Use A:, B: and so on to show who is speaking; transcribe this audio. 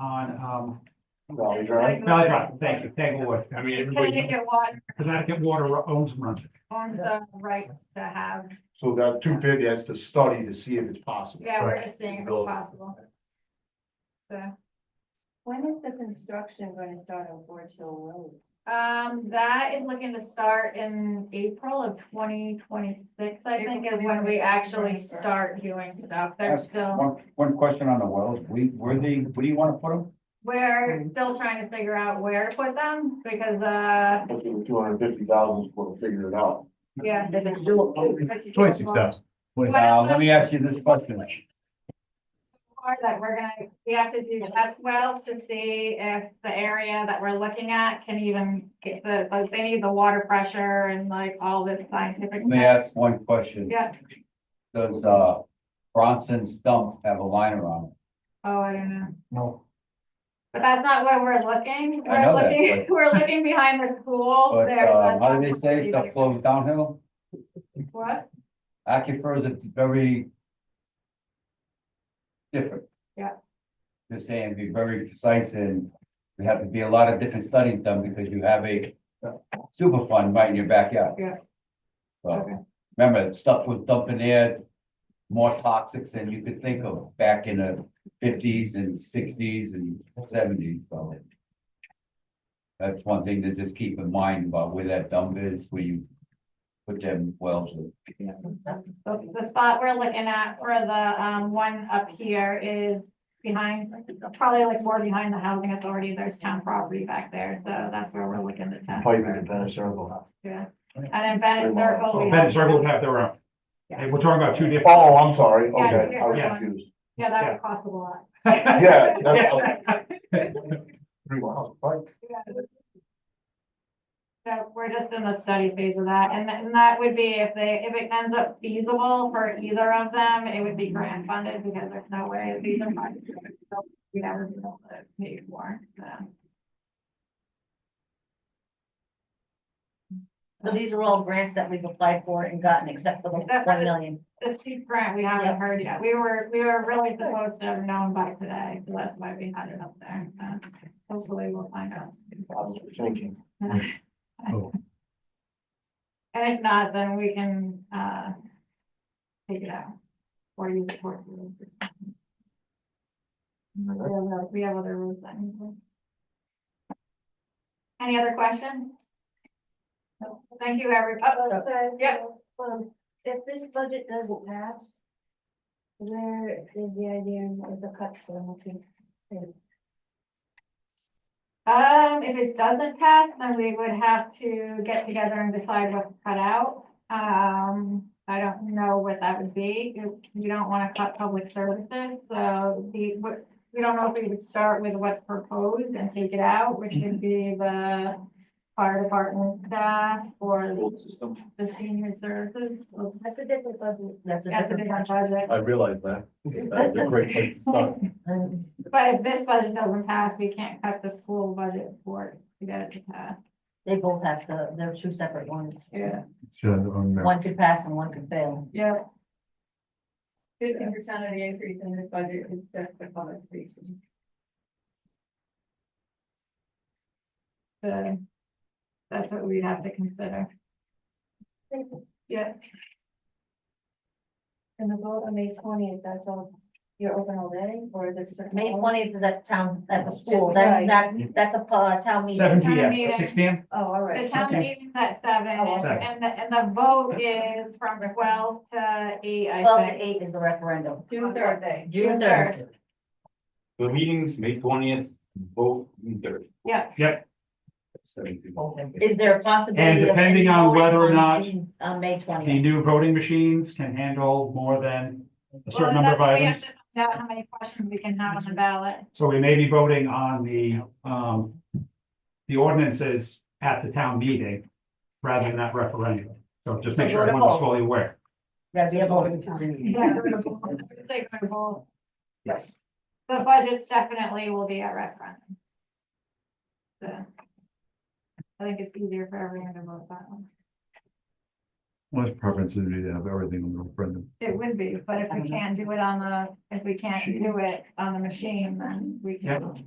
A: on, um,
B: Valley Drive.
A: Valley Drive, thank you, thank you, Wood. I mean, everybody,
C: Connecticut Water
A: Connecticut Water owns Brunswick.
C: owns the rights to have,
B: So that two fifty has to study to see if it's possible.
C: yeah, we're
A: Right.
C: just seeing if it's possible. So,
D: When is the construction going to start on Forge Hill
C: um, that is looking to start in April of twenty twenty-six, I think is when we actually start doing stuff. They're
E: That's
C: still.
E: One, one question on the wells, we, where they, what do you wanna put them?
F: Mm-hmm.
C: We're still trying to figure out where to put them because, uh,
B: Two hundred fifty thousand is what we figured it out.
C: yeah.
D: Road?
C: it's
F: Twenty-six
C: doable.
F: thousand.
E: Now, Uh, let me ask you this question,
C: Or That we're gonna, we have to do test wells to see if the area that we're looking at can even get the, like, they need the water pressure and like all this scientific.
E: let me ask one question.
C: Yeah,
E: Does, uh, Bronson's dump have a liner on
C: oh, I don't know.
A: No.
C: But that's not where we're looking.
E: I
C: We're
E: know that,
C: looking, we're looking behind the
E: it?
C: school.
E: But,
C: There's
E: uh,
C: a-
E: how do they say, stuff flows downhill?
C: What?
E: Aquifers are very different.
C: Yeah.
E: Just saying, be very precise and there have to be a lot of different studies done because you have a super fund right in your backyard.
C: Yeah. Okay.
E: So, remember, stuff was dumping there, more toxics than you could think of back in the fifties and sixties and seventies, so. That's one thing to just keep in mind about where that dump is, where you put them wells in.
C: The the spot we're looking at for the, um, one up here is behind, probably like more behind the housing authority, there's town property back there, so that's where we're looking to test.
B: Pipe in the Venice Circle.
C: Yeah, and in Bennett Circle. we
A: Ben
C: have-
A: Circle would have their own. Hey, we're talking about two different.
B: Oh, I'm sorry, okay, I
A: Yeah.
B: was confused.
C: Yeah, that would cost a lot.
B: Yeah. that's- Three miles, right?
C: So we're just in the study phase of that, and then that would be if they, if it ends up feasible for either of them, it would be grant funded because there's no way these are. funded. So We'd never be able to pay for, so.
D: So these are all grants that we've applied for and gotten acceptable,
C: That's
D: one million.
C: The steep grant, we haven't
D: Yeah.
C: heard yet. We were, we were really supposed to have known by today, so that's why we had it up there. So Hopefully we'll find out. soon.
B: I was thinking,
C: And if not, then we can, uh, take it out. Or use it for. We have other- We have other rules that need to- Any other questions? Thank you, everybody. yeah.
D: Um, if this budget doesn't pass, where is the idea of the cuts that I'm looking?
C: Um, if it doesn't pass, then we would have to get together and decide what to cut out. Um, I don't know what that would be. You you don't want to cut public services, so the, what, we don't know if we would start with what's proposed and take it out, which would be the fire department staff or
F: system.
C: the senior services.
D: That's a different budget. That's
C: That's a different budget.
F: I realize that. That's a great place to start.
C: But if this budget doesn't pass, we can't cut the school budget for it to get it to pass.
D: They both have to, they're two separate ones.
C: Yeah,
D: One could pass and one could fail.
C: yeah.
G: Fifty percent of the increase in this budget is just the public safety.
C: So that's what we'd have to consider. Yeah,
D: And the vote on May twentieth, that's all, you're open already, or there's?
G: May
D: May oh, twentieth is at town, at the school,
G: Right.
D: that's, that, that's a, uh, town meeting.
A: Seven
C: Town
A: P M,
C: meeting.
A: six P M,
D: Oh, all
C: the
D: right.
C: town
A: Okay.
C: meeting's at seven
D: Oh, okay.
C: and the, and the vote is from twelve to eight,
D: Twelve
C: I
D: to
C: think.
D: eight is the referendum.
G: June third day.
D: June third.
F: The meetings, May twentieth, vote June third.
C: Yeah,
D: Is there a possibility?
A: And
D: of any
A: depending on
D: voting
A: whether or
D: on
A: not
D: June- On May
A: the
D: twentieth.
A: new voting machines can handle more than a
C: well,
A: certain number
C: that's
A: of
C: what we have
A: items.
C: to find out how many questions we can have on the ballot.
A: So we may be voting on the, um, the ordinances at the town meeting rather than at referendum. So just make sure
D: Vote a
A: everyone's
D: poll.
A: fully aware.
D: That'd be a voting time.
C: Yeah, we're gonna vote. It's like we're gonna vote.
A: Yes.
C: The budgets definitely will be at referendum. So I think it's easier for everyone to vote that one.
H: My preference would be to have everything on the referendum.
C: It would be, but if we can't do it on the, if we can't do it on the machine, then we can.